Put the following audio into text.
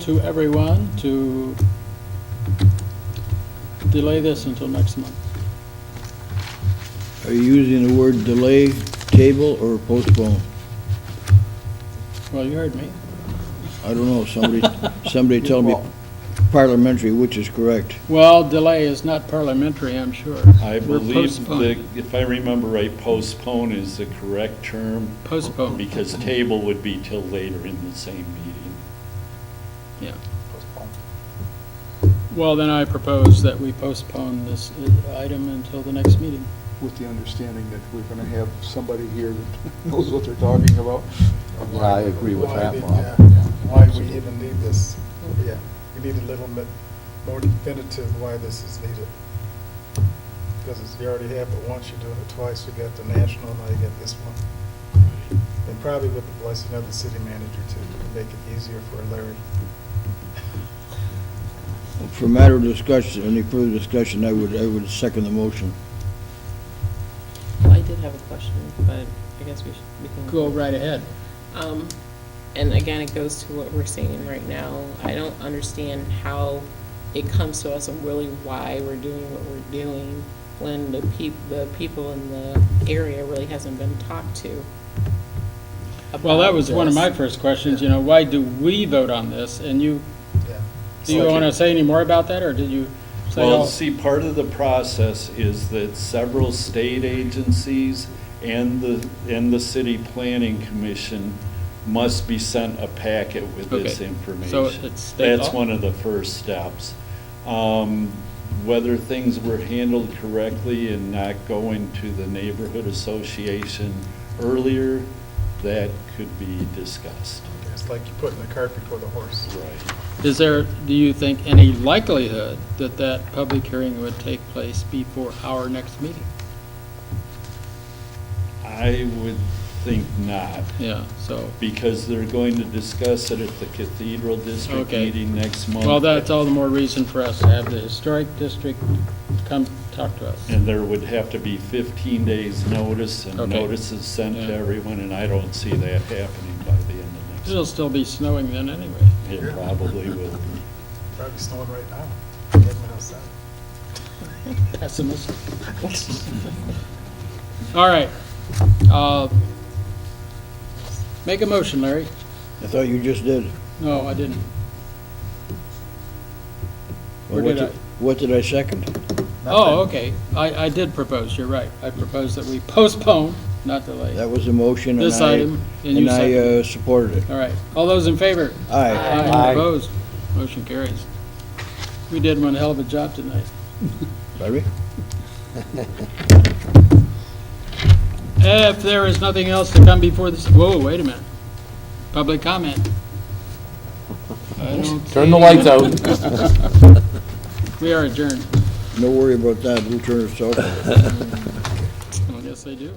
to everyone to delay this until next month. Are you using the word delay, table, or postpone? Well, you heard me. I don't know, somebody, somebody tell me parliamentary, which is correct. Well, delay is not parliamentary, I'm sure. I We're believe that, postponing. if I remember right, postpone is the correct term, Postpone, because table would be till later in the same meeting. yeah. Well, then I propose that we postpone this uh, item until the next meeting. with the understanding that we're going to have somebody here that knows what they're talking about. Yeah, I agree with Why that, did- Bob. yeah, yeah. Why we even need this, yeah, we need a little bit more definitive why this is needed. Because it's, you already have it once, you're doing it twice, you got the national, now you got this one. And probably with the blessing of the city manager too, to make it easier for Larry. For matter of discussion, any further discussion, I would, I would second the motion. I did have a question, but I guess we should, we can. Go right ahead. Um, and again, it goes to what we're seeing right now. I don't understand how it comes to us and really why we're doing what we're doing when the peop, the people in the area really hasn't been talked to. Well, that was one of my about first questions, you know, why do we vote on this? And you, Yeah. do you want to say any more about that, or did you say oh, Well, all? see, part of the process is that several state agencies and the, and the city planning commission must be sent a packet with this Okay. information. So it's state That's law? one of the first steps. Um, Whether things were handled correctly and not going to the neighborhood association earlier, that could be discussed. It's like you're putting the cart before the horse. Right. Is there, do you think, any likelihood that that public hearing would take place before our next meeting? I would think not. Yeah, so, because they're going to discuss it at the Cathedral District Okay. meeting next month. well, that's all the more reason for us to have the historic district come talk to us. And there would have to be 15 days' notice, and Okay. notices sent to Yeah. everyone, and I don't see that happening by the end of next It'll month. still be snowing then anyway. It probably will be. Probably snowing right now. I haven't been outside. Pessimistic. All right. Uh, Make a motion, Larry. I thought you just did. No, I didn't. Well, Or what did I? What did I second? Oh, okay. I, I did propose, you're right. I proposed that we postpone, not delay, That was the motion, and I... this item. And you And I second. uh, supported it. All right. All those in favor? Aye. Aye. Opposed? Motion carries. We did one hell of a job tonight. Larry? If there is nothing else to come before this, whoa, wait a minute. Public comment. I don't Turn the see- lights out. We are adjourned. No worry about that, we'll turn it off. Well, yes, they do.